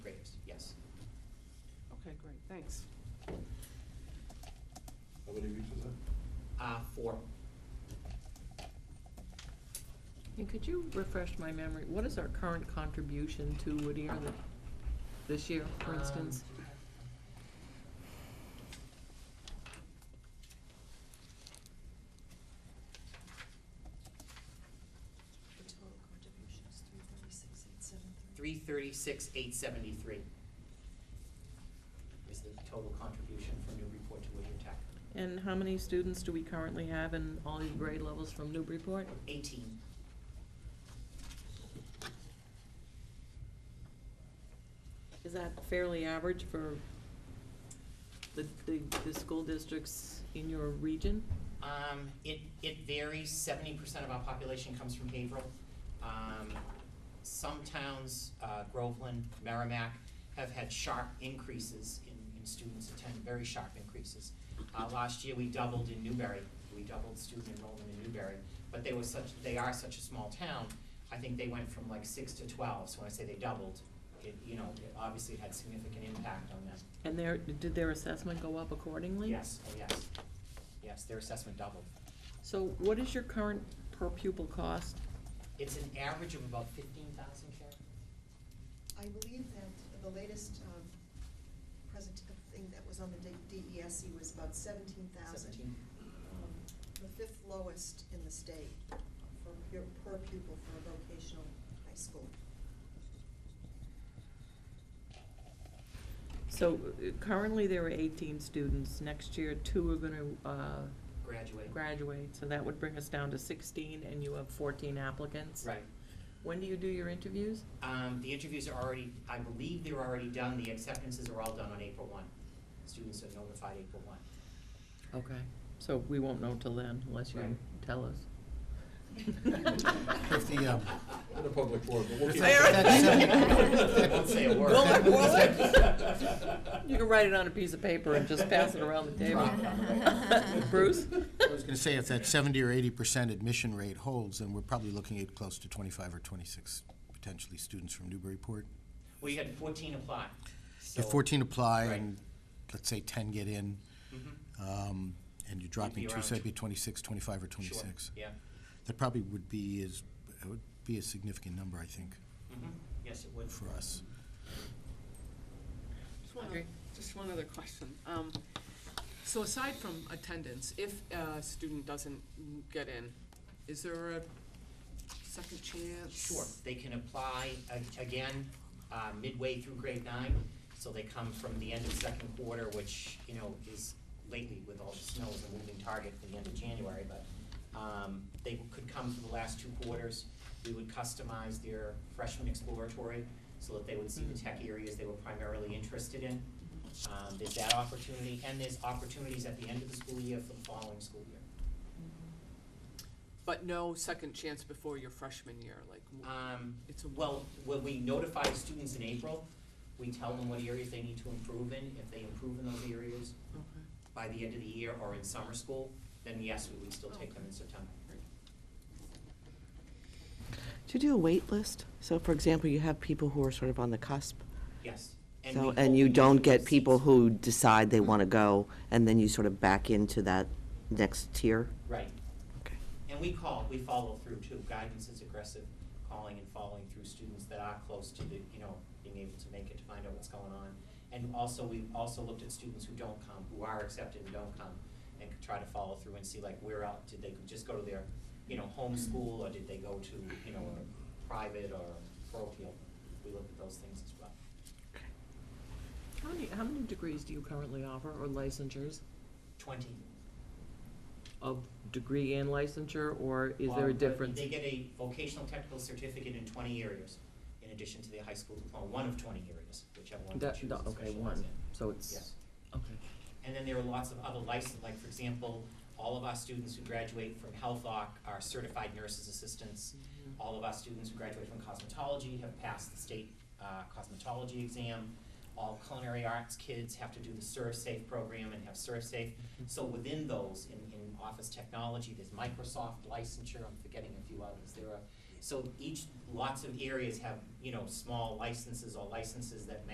Thanks. How many weeks is that? Uh, four. And could you refresh my memory, what is our current contribution to Whittier th- this year, for Um, instance? The total contribution is three thirty-six, eight seven three. Three thirty-six, eight seventy-three is the total contribution from Newburyport to Whittier Tech. And how many students do we currently have in all these grade levels from Newburyport? Eighteen. Is that fairly average for the, the, the school districts in your region? Um, it, it varies, seventy percent of our population comes from Haverhill. Um, some towns, uh, Groveland, Merrimack, have had sharp increases in, in students attend, very sharp increases. Uh, last year, we doubled in Newbury, we doubled student enrollment in Newbury, but they were such, they are such a small town. I think they went from like six to twelve, so when I say they doubled, it, you know, it obviously had significant impact on them. And their, did their assessment go up accordingly? Yes, oh yes, yes, their assessment doubled. So what is your current per pupil cost? It's an average of about fifteen thousand, Karen? I believe that the latest, um, present, uh, thing that was on the D- DESE was about seventeen thousand. Um, Seventeen. The fifth lowest in the state for, pu- per pupil for a vocational high school. So uh, currently there are eighteen students, next year two are gonna, uh, Graduate. graduate, so that would bring us down to sixteen, and you have fourteen applicants. Right. When do you do your interviews? Um, the interviews are already, I believe they're already done, the acceptances are all done on April one. Students are notified April one. Okay. So we won't know till then, unless you Right. tell us. If the, um, In a public forum, but we'll If keep. that- that- Won't say a word. Will it, will it? You can write it on a piece of paper and just pass it around the table. Bruce? I was gonna say, if that seventy or eighty percent admission rate holds, then we're probably looking at close to twenty-five or twenty-six potentially students from Newburyport. We had fourteen apply, so. If fourteen apply Right. and, let's say, ten get in, Mhm. um, and you're be dropping two, around so tw- that'd be twenty-six, twenty-five or Sure, twenty-six. Yeah. That probably would be is, it would be a significant number, I think, Mhm. Yes, it would. for us. Just one, Audrey? oth- just one other question. Um, So aside from attendance, if a student doesn't get in, is there a second chance? Sure, they can apply a- again uh, midway through grade nine, so they come from the end of second quarter, which, you know, is lately with all the snow is a moving target for the end of January, but um, they could come for the last two quarters. We would customize their freshman exploratory so that they would see the tech areas they were primarily interested in. Um, There's that opportunity, and there's opportunities at the end of the school year for the following school year. But no second chance before your freshman year, like, w- Um, it's a. Well, when we notify students in April, we tell them what areas they need to improve in. If they improve in those areas Okay. by the end of the year or in summer school, then yes, we would still take them in September. Do you do a wait list? So for example, you have people who are sort of on the cusp. Yes. we So, hope and you we don't have get seats. people who decide they want to go and then you sort of back into that next tier? Right. Okay. And we call, we follow through too. Guidance is aggressive, calling and following through students that are close to the, you know, being able to make it to find out what's going on. And also, we've also looked at students who don't come, who are accepted and don't come, and could try to follow through and see like where else, did they just go to their, you know, home school, or did they go to, you know, a private or parochial? We look at those things as well. How many, how many degrees do you currently offer, or licensures, Twenty. of degree and licensure, or is Um, there a but difference? They get a vocational technical certificate in twenty areas, in addition to their high school diploma, one of twenty areas, whichever one they That- choose to that- specialize in. okay, one, so it's. Yes, Okay. and then there are lots of other license, like, for example, all of our students who graduate from Health Oc are certified nurses assistants. All of our students who graduate from cosmetology have passed the state, uh, cosmetology exam. All culinary arts kids have to do the ServSafe program and have ServSafe. So within those, in, in office technology, there's Microsoft licensure, I'm forgetting a few others, there are. So each, lots of areas have, you know, small licenses or licenses that match